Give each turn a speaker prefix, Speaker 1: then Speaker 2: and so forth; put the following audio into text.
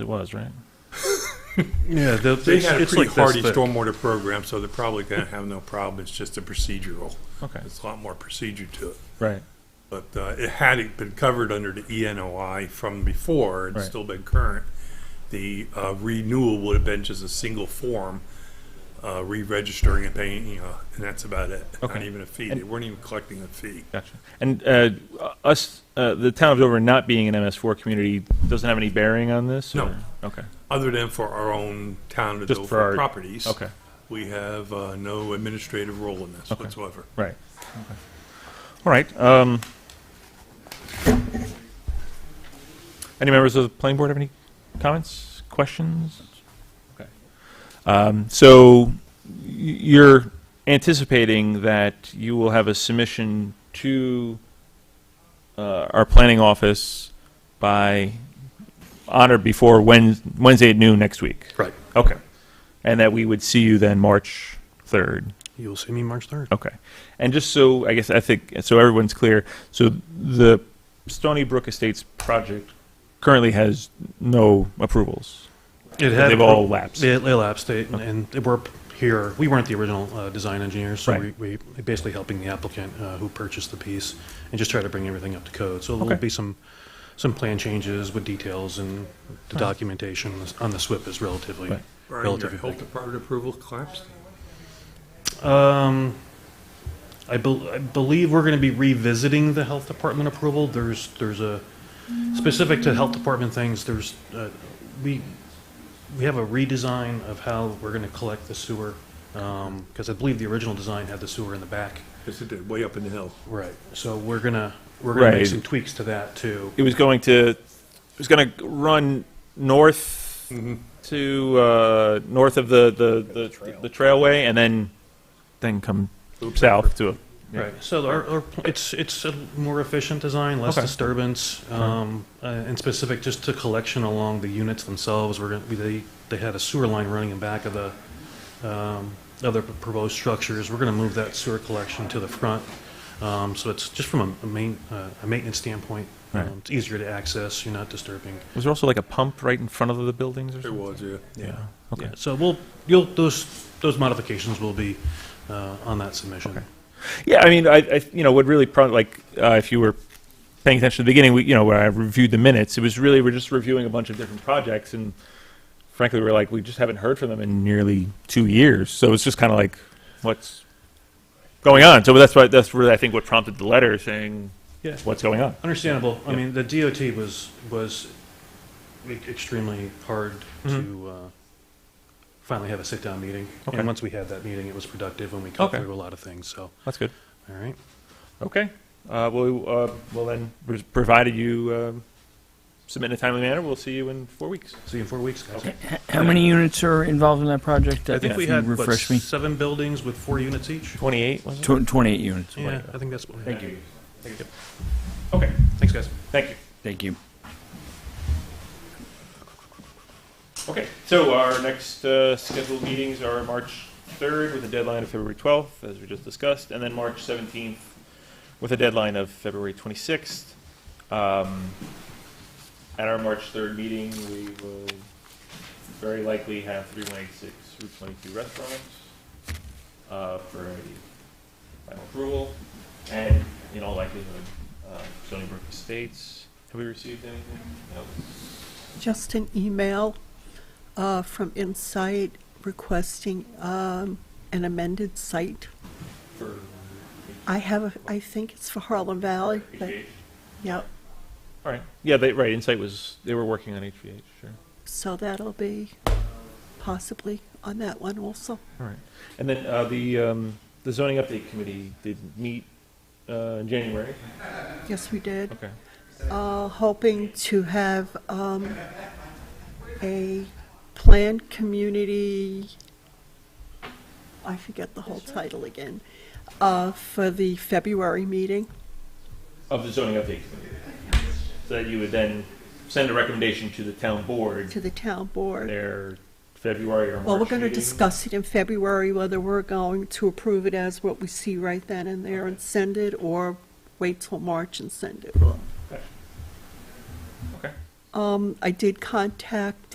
Speaker 1: It was, right?
Speaker 2: Yeah, they'll-
Speaker 3: They
Speaker 2: it's,
Speaker 3: had a
Speaker 2: it's
Speaker 3: pretty
Speaker 2: like this
Speaker 3: hardy
Speaker 2: thick.
Speaker 3: stormwater program, so they're probably going to have no problem. It's just a procedural.
Speaker 1: Okay.
Speaker 3: It's a lot more procedure to it.
Speaker 1: Right.
Speaker 3: But uh, it had it been covered under the E ENOI from before and
Speaker 1: Right.
Speaker 3: still been current, the uh, renewal would have been just a single form, uh, re-registering and paying, you know, and that's about it. Not
Speaker 1: Okay.
Speaker 3: even a fee.
Speaker 1: And-
Speaker 3: They weren't even collecting a fee.
Speaker 1: Gotcha. And uh, us, uh, the town of Dover not being an MS4 community doesn't have any bearing on this?
Speaker 3: No.
Speaker 1: or- Okay.
Speaker 3: Other than for our own town of
Speaker 1: Just for
Speaker 3: Dover
Speaker 1: our-
Speaker 3: properties.
Speaker 1: Okay.
Speaker 3: We have uh, no administrative role in this
Speaker 1: Okay.
Speaker 3: whatsoever.
Speaker 1: Right. Okay. All right. um, Any members of the planning board have any comments, questions? Okay. Um, So y- you're anticipating that you will have a submission to uh, our planning office by, on or before Wednes- Wednesday at noon next week?
Speaker 4: Right.
Speaker 1: Okay. And that we would see you then March 3rd?
Speaker 4: You'll see me March 3rd.
Speaker 1: Okay. And just so, I guess, I think, so everyone's clear, so the Stony Brook Estates project currently has no approvals.
Speaker 4: It
Speaker 1: They've all lapsed.
Speaker 4: It it lapsed, it- and and we're here, we weren't the original uh, design engineers, so we
Speaker 1: Right.
Speaker 4: we we're basically helping the applicant uh, who purchased the piece, and just try to bring everything up to code. So there'll
Speaker 1: Okay.
Speaker 4: be some, some plan changes with details, and the documentation on the- on the SWIP is relatively,
Speaker 1: Right.
Speaker 3: Brian, your
Speaker 4: relatively
Speaker 3: health
Speaker 4: big.
Speaker 3: department approval collapsed?
Speaker 4: Um, I bel- I believe we're going to be revisiting the health department approval. There's, there's a, specific to health department things, there's, uh, we, we have a redesign of how we're going to collect the sewer. Because I believe the original design had the sewer in the back.
Speaker 3: Yes, it did, way up in the hill.
Speaker 4: Right. So we're going to, we're going to
Speaker 1: Right.
Speaker 4: make some tweaks to that too.
Speaker 1: It was going to, it was going to run north
Speaker 3: Mm-hmm.
Speaker 1: to, uh, north of the, the, the- the trailway and then, then come south to a. yeah.
Speaker 4: Right, so our, our, pl- it's, it's a more efficient design, less
Speaker 1: Okay.
Speaker 4: disturbance, um, uh, and specific just to collection along the units themselves, we're gonna, we- they, they had a sewer line running in back of the, um, other proposed structures, we're gonna move that sewer collection to the front. Um, so it's just from a, a main, uh, a maintenance standpoint,
Speaker 1: Right.
Speaker 4: um, it's easier to access, you're not disturbing.
Speaker 1: Was there also like a pump right in front of the buildings or
Speaker 3: There
Speaker 1: something?
Speaker 3: was, yeah.
Speaker 1: Yeah. Okay.
Speaker 4: Yeah, So we'll, you'll, those, those modifications will be, uh, on that submission.
Speaker 1: Okay. Yeah, I mean, I, I you know, would really probably like uh, if you were paying attention to the beginning, we, you know, where I reviewed the minutes, it was really we're just reviewing a bunch of different projects, and frankly, we're like we just haven't heard from them in nearly two years, so it's just kind of like what's going on. So that's why that's really I think what prompted the letter saying
Speaker 4: Yeah.
Speaker 1: what's going on.
Speaker 4: Understandable. I mean, the DOT was, was e- extremely hard
Speaker 5: Mm-hmm.
Speaker 4: to uh, finally have a sit-down meeting.
Speaker 1: Okay.
Speaker 4: And once we had that meeting, it was productive and we cut
Speaker 1: Okay.
Speaker 4: through a lot of things, so,
Speaker 1: That's good.
Speaker 4: all right.
Speaker 1: Okay. Uh, well, uh, well then, pres- provided you um submit in a timely manner, we'll see you in four weeks.
Speaker 4: See you in four weeks, guys.
Speaker 1: Okay.
Speaker 5: How many units are involved in that project?
Speaker 4: I think
Speaker 5: If
Speaker 4: we
Speaker 5: you
Speaker 4: had, what,
Speaker 5: Refresh me.
Speaker 4: seven buildings with four units each?
Speaker 1: Twenty-eight was it?
Speaker 5: Tw- 28 units.
Speaker 4: Yeah, I think that's what we had.
Speaker 5: Thank you.
Speaker 1: Okay.
Speaker 4: Thanks, guys.
Speaker 1: Thank you.
Speaker 5: Thank you.
Speaker 1: Okay, so our next uh, scheduled meetings are March 3rd with a deadline of February 12th, as we just discussed, and then March 17th with a deadline of February 26th. Um, At our March 3rd meeting, we will very likely have 3186 Route 22 restaurants uh, for a final approval, and in all likelihood, uh, Stony Brook Estates. Have we received anything? No.
Speaker 6: Just an email uh, from Insight requesting um, an amended site.
Speaker 1: For
Speaker 6: I have, a- I think it's for Harlem Valley, but,
Speaker 1: HGH?
Speaker 6: yep.
Speaker 1: All right. Yeah, they, right. Insight was, they were working on HVH, sure.
Speaker 6: So that'll be possibly on that one also.
Speaker 1: All right. And then uh, the, um, the zoning update committee did meet uh, in January.
Speaker 6: Yes, we did.
Speaker 1: Okay.
Speaker 6: Uh, Hoping to have um, a planned community, I forget the whole title again, uh, for the February meeting.
Speaker 1: Of the zoning update committee. So that you would then send a recommendation to the town board
Speaker 6: to the town board.
Speaker 1: their February or March
Speaker 6: Well, we're going to
Speaker 1: meeting.
Speaker 6: discuss it in February, whether we're going to approve it as what we see right then and there and send it, or wait till March and send it.
Speaker 1: Okay.
Speaker 6: Um, I did contact